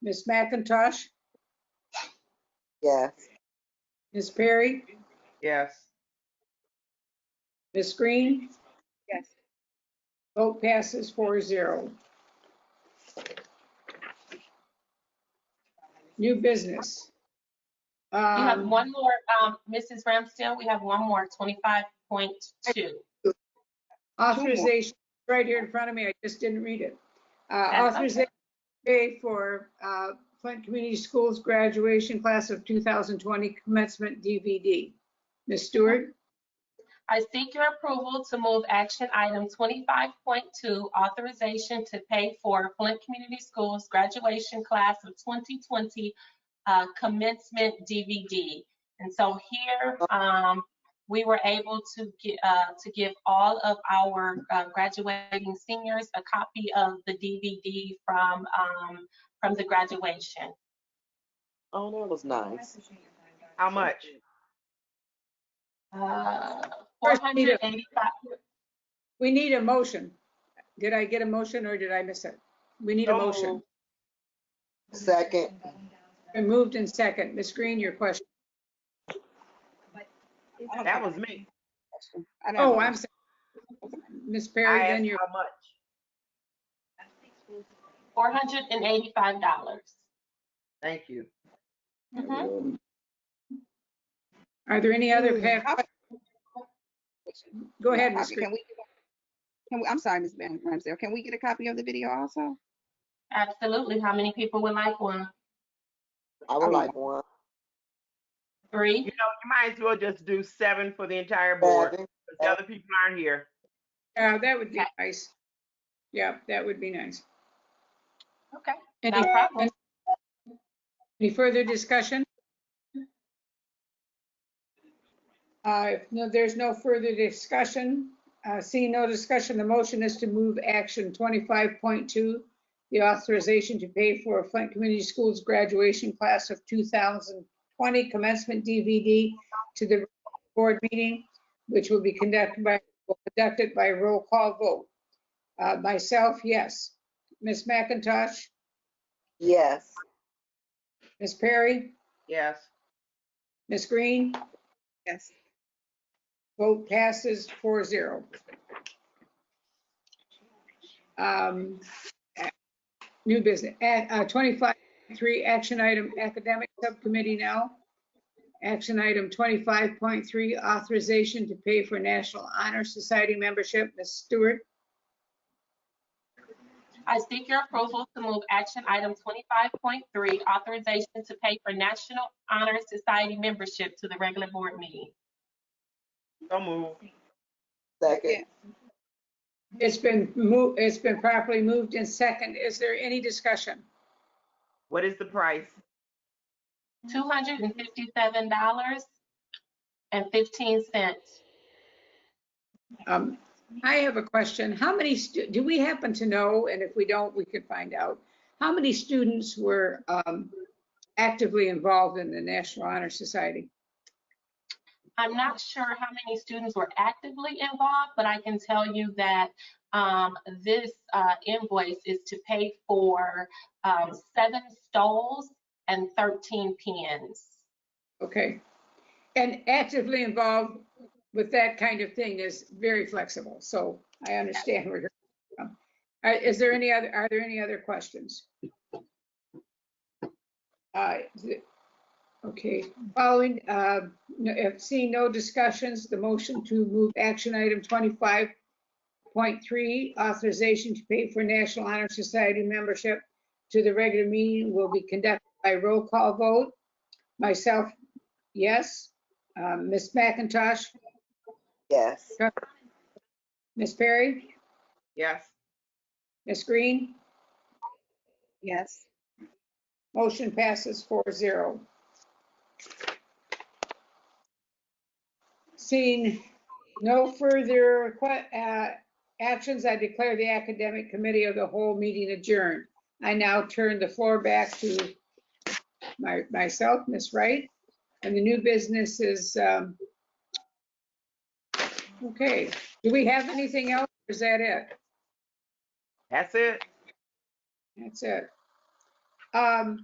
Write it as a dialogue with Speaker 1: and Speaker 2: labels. Speaker 1: Ms. McIntosh,
Speaker 2: Yes.
Speaker 1: Ms. Perry,
Speaker 3: Yes.
Speaker 1: Ms. Green,
Speaker 2: Yes.
Speaker 1: vote passes four zero. New business.
Speaker 4: We have
Speaker 1: Um,
Speaker 4: one more, um, Mrs. Ramsdale, we have one more, twenty-five point two.
Speaker 1: Authorization, right here in front of me, I just didn't read it. Uh,
Speaker 4: That's okay.
Speaker 1: Authorization pay for uh, Flint Community Schools graduation class of 2020 commencement DVD. Ms. Stewart,
Speaker 4: I seek your approval to move action item twenty-five point two, authorization to pay for Flint Community Schools graduation class of twenty twenty uh, commencement DVD. And so here, um, we were able to get, uh, to give all of our uh, graduating seniors a copy of the DVD from, um, from the graduation.
Speaker 2: Oh, that was nice.
Speaker 3: How much?
Speaker 4: Uh,
Speaker 1: First reader.
Speaker 4: 485
Speaker 1: we need a motion. Did I get a motion or did I miss it? We need a
Speaker 3: So
Speaker 1: motion.
Speaker 2: Second.
Speaker 1: Been moved and second. Ms. Green, your question.
Speaker 3: That was me.
Speaker 2: I don't
Speaker 1: Oh,
Speaker 2: know.
Speaker 1: I'm sorry. Ms.
Speaker 3: I
Speaker 1: Perry, then
Speaker 3: asked
Speaker 1: your,
Speaker 3: how much.
Speaker 4: $485.
Speaker 3: Thank you.
Speaker 4: Mhm.
Speaker 1: are there any other?
Speaker 2: Hmm,
Speaker 1: pa-
Speaker 2: how-
Speaker 1: Go ahead,
Speaker 2: how-
Speaker 1: Ms. Green.
Speaker 2: Can we, can we, I'm sorry, Ms. Van Ramsdale, can we get a copy of the video also?
Speaker 4: Absolutely. How many people would like one?
Speaker 5: I
Speaker 2: mean-
Speaker 5: would like one.
Speaker 3: You know,
Speaker 4: Three?
Speaker 3: you might as well just do seven for the entire board,
Speaker 5: Seven.
Speaker 3: because the other people aren't here.
Speaker 1: Yeah, Uh, that would be
Speaker 4: Okay.
Speaker 1: nice. Yeah, that would be nice.
Speaker 4: Okay,
Speaker 1: Any-
Speaker 4: no problem.
Speaker 1: Any further discussion? Uh, if no, there's no further discussion. Uh, seeing no discussion, the motion is to move action twenty-five point two, the authorization to pay for Flint Community Schools graduation class of two thousand twenty commencement DVD to the board meeting, which will be conducted by, conducted by roll call vote. Uh, myself, yes. Ms. McIntosh,
Speaker 5: Yes.
Speaker 1: Ms. Perry?
Speaker 3: Yes.
Speaker 1: Ms. Green,
Speaker 2: Yes.
Speaker 1: vote passes 4-0. Um, a- New business, At, uh, 25, 3, action item, academic subcommittee now. Action item 25.3, authorization to pay for National Honor Society membership. Ms. Stewart,
Speaker 4: I seek your approval to move action item 25.3, authorization to pay for National Honor Society membership to the regular board meeting.
Speaker 3: So move.
Speaker 5: Second.
Speaker 1: it's been moved, it's been properly moved in second. Is there any discussion?
Speaker 3: What is the price?
Speaker 4: $257.15.
Speaker 1: Um, I have a question. How many, stu- do we happen to know, and if we don't, we could find out, how many students were um, actively involved in the National Honor Society?
Speaker 4: I'm not sure how many students were actively involved, but I can tell you that um, this uh, invoice is to pay for um, seven stoles and 13 pins.
Speaker 1: Okay. And actively involved with that kind of thing is very flexible, so I understand where you're coming from. Uh, Is there any other, are there any other questions? Uh, th- Okay, following, uh, no- if seeing no discussions, the motion to move action item 25.3, authorization to pay for National Honor Society membership to the regular meeting will be conducted by roll call vote. Myself, yes. Um, Ms. McIntosh,
Speaker 5: Yes.
Speaker 1: Ms. Perry,
Speaker 3: Yes.
Speaker 1: Ms. Green,
Speaker 2: Yes.
Speaker 1: motion passes 4-0. Seeing no further que- uh, actions, I declare the Academic Committee of the whole meeting adjourned. I now turn the floor back to my- myself, Ms. Wright, and the new business is, um, okay, do we have anything else? or Is that it?
Speaker 3: That's it.
Speaker 1: That's it. Um,